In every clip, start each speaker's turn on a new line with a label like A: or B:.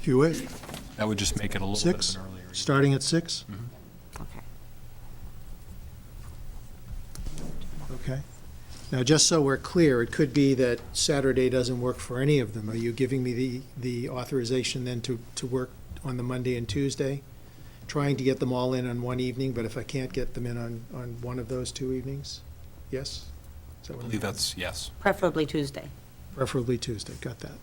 A: if you wish.
B: That would just make it a little bit of
A: Six,
B: an earlier. evening.
A: starting at six,
C: Okay.
A: okay? Now, just so we're clear, it could be that Saturday doesn't work for any of them. Are you giving me the, the authorization then to, to work on the Monday and Tuesday? Trying to get them all in on one evening, but if I can't get them in on, on one of those two evenings? Yes? Is that
B: I
A: what I'm-
B: believe that's, yes.
C: Preferably Tuesday.
A: Preferably Tuesday, got that.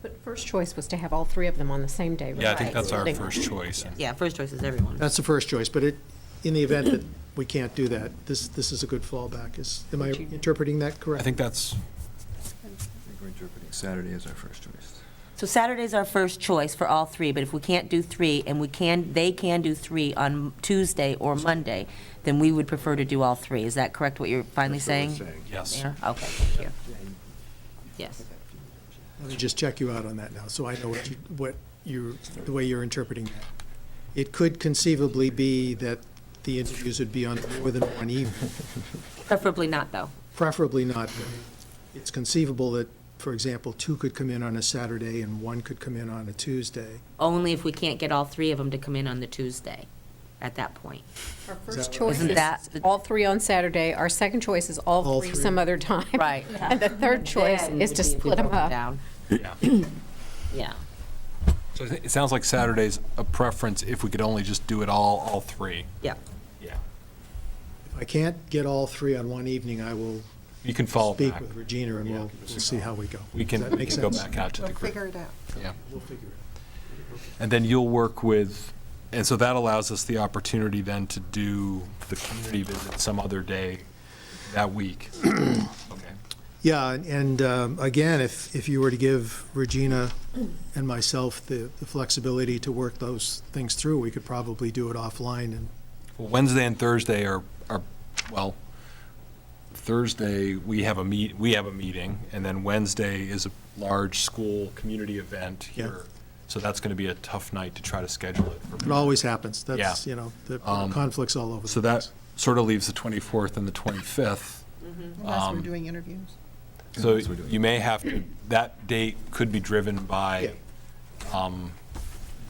D: But first choice was to have all three of them on the same day, right?
B: Yeah, I think
C: Right.
B: that's our
C: Right.
B: first choice.
C: Yeah, first choice is everyone.
A: That's the first choice, but it, in the event that we can't do that, this, this is a good fallback. Is, am I interpreting that
B: I
A: correctly?
B: think that's,
E: I think we're interpreting Saturday as our first choice.
C: So Saturday's our first choice for all three, but if we can't do three, and we can, they can do three on Tuesday or Monday, then we would prefer to do all three. Is that correct, what you're finally saying?
B: yes.
C: Mayor? Okay, thank you. Yes.
A: Let me just check you out on that now, so I know what you, what you, the way you're interpreting that. It could conceivably be that the interviews would be on more than one evening,
C: Preferably not, though.
A: preferably not. It's conceivable that, for example, two could come in on a Saturday and one could come in on a Tuesday.
C: Only if we can't get all three of them to come in on the Tuesday at that point.
D: Our first choice
C: Isn't
D: is
C: that-
D: all three on Saturday, our second choice is
A: All
D: all three
A: three.
D: some other time.
C: Right.
D: And the third choice
C: Then
D: is
C: would
D: to
C: be if we
D: split them
C: broke
D: up.
C: down.
B: Yeah.
C: Yeah.
B: So I thi- it sounds like Saturday's a preference if we could only just do it all, all three.
C: Yeah.
B: Yeah.
A: If I can't get all three on one evening, I will
B: You can follow
A: speak
B: back.
A: with Regina and we'll, we'll see how we go.
B: We
A: Does
B: can
A: that
B: we
A: make
B: can go
A: sense?
B: back out to the group.
F: it out.
B: Yeah.
A: We'll figure it out.
B: And then you'll work with, and so that allows us the opportunity then to do the community visit some other day that week. Okay.
A: Yeah, and- and um, again, if, if you were to give Regina and myself the the flexibility to work those things through, we could probably do it offline and
B: Well, Wednesday and Thursday are, are, well, Thursday, we have a meet, we have a meeting, and then Wednesday is a large school community event
A: Yeah.
B: here. So that's going to be a tough night to try to schedule it. for
A: it
B: people.
A: always happens. That's,
B: Yeah.
A: you know, the conflicts all over. the
B: So
A: place.
B: that sort of leaves the 24th and the 25th.
F: Unless we're doing interviews.
B: So
E: That's what we're doing.
B: you may have to, that date could be driven by, um,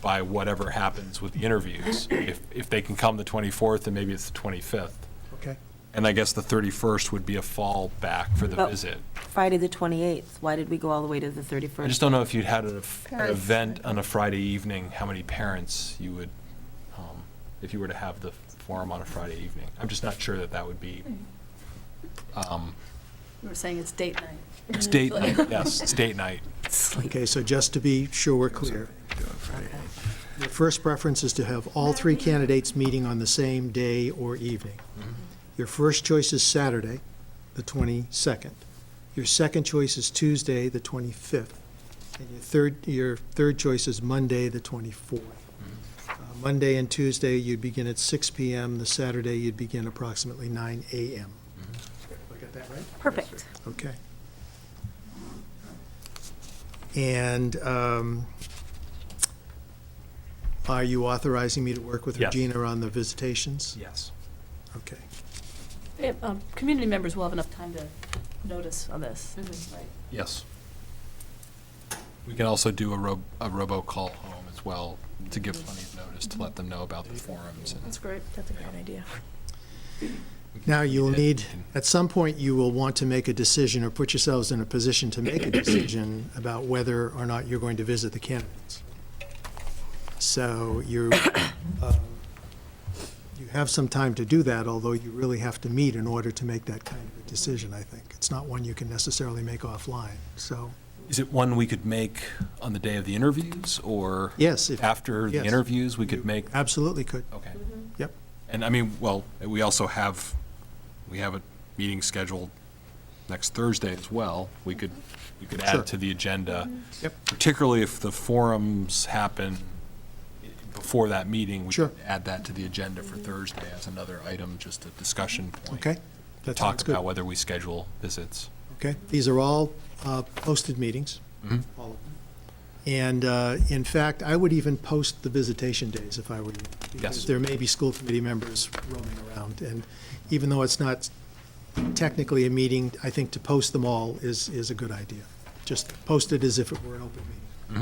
B: by whatever happens with the interviews. If, if they can come the 24th, then maybe it's the 25th.
A: Okay.
B: And I guess the 31st would be a fallback for the
C: Well-
B: visit.
C: Friday, the 28th, why did we go all the way to the 31st?
B: I just don't know if you'd had an an
F: Parents.
B: event on a Friday evening, how many parents you would, um, if you were to have the forum on a Friday evening. I'm just not sure that that would be, um,
G: You were saying it's date night.
B: it's date night, yes, it's date night.
A: Okay, so just to be sure we're clear,
E: Do it Friday.
A: the first preference is to have all three candidates meeting on the same day or evening. Your first choice is Saturday, the 22nd. Your second choice is Tuesday, the 25th. And your third, your third choice is Monday, the 24th.
B: Mm-hmm.
A: Uh, Monday and Tuesday, you'd begin at 6 PM. The Saturday, you'd begin approximately 9 AM.
B: Mm-hmm.
A: I got that right?
C: Perfect.
A: Okay. And um, are you authorizing me to work with
B: Yes.
A: Regina on the visitations?
B: Yes.
A: Okay.
G: Yeah, um, Community members will have enough time to notice on this, right?
B: Yes. We can also do a ro, a robocall home as well to give plenty of notice to let them know about the forums and.
G: That's great. That's a great idea.
A: Now, you'll
B: Yeah.
A: need, at some point, you will want to make a decision or put yourselves in a position to make a decision about whether or not you're going to visit the candidates. So you, um, you have some time to do that, although you really have to meet in order to make that kind of a decision, I think. It's not one you can necessarily make offline, so,
B: Is it one we could make on the day of the interviews, or?
A: yes, if,
B: After the
A: yes.
B: interviews, we could make,
A: absolutely could,
B: okay.
A: yep.
B: And I mean, well, we also have, we have a meeting scheduled next Thursday as well. We could, we could
A: Sure.
B: add to the agenda.
A: Yep.
B: Particularly if the forums happen i- before that meeting. we
A: Sure.
B: could Add that to the agenda for Thursday as another item, just a discussion point.
A: Okay? That sounds
B: Talk
A: good.
B: about whether we schedule visits.
A: Okay, these are all uh, posted meetings. All of them. And uh, in fact, I would even post the visitation days if I were you.
B: Yes.
A: Because there may be school committee members roaming around. And even though it's not technically a meeting, I think to post them all is, is a good idea. Just post it as if it were an open meeting.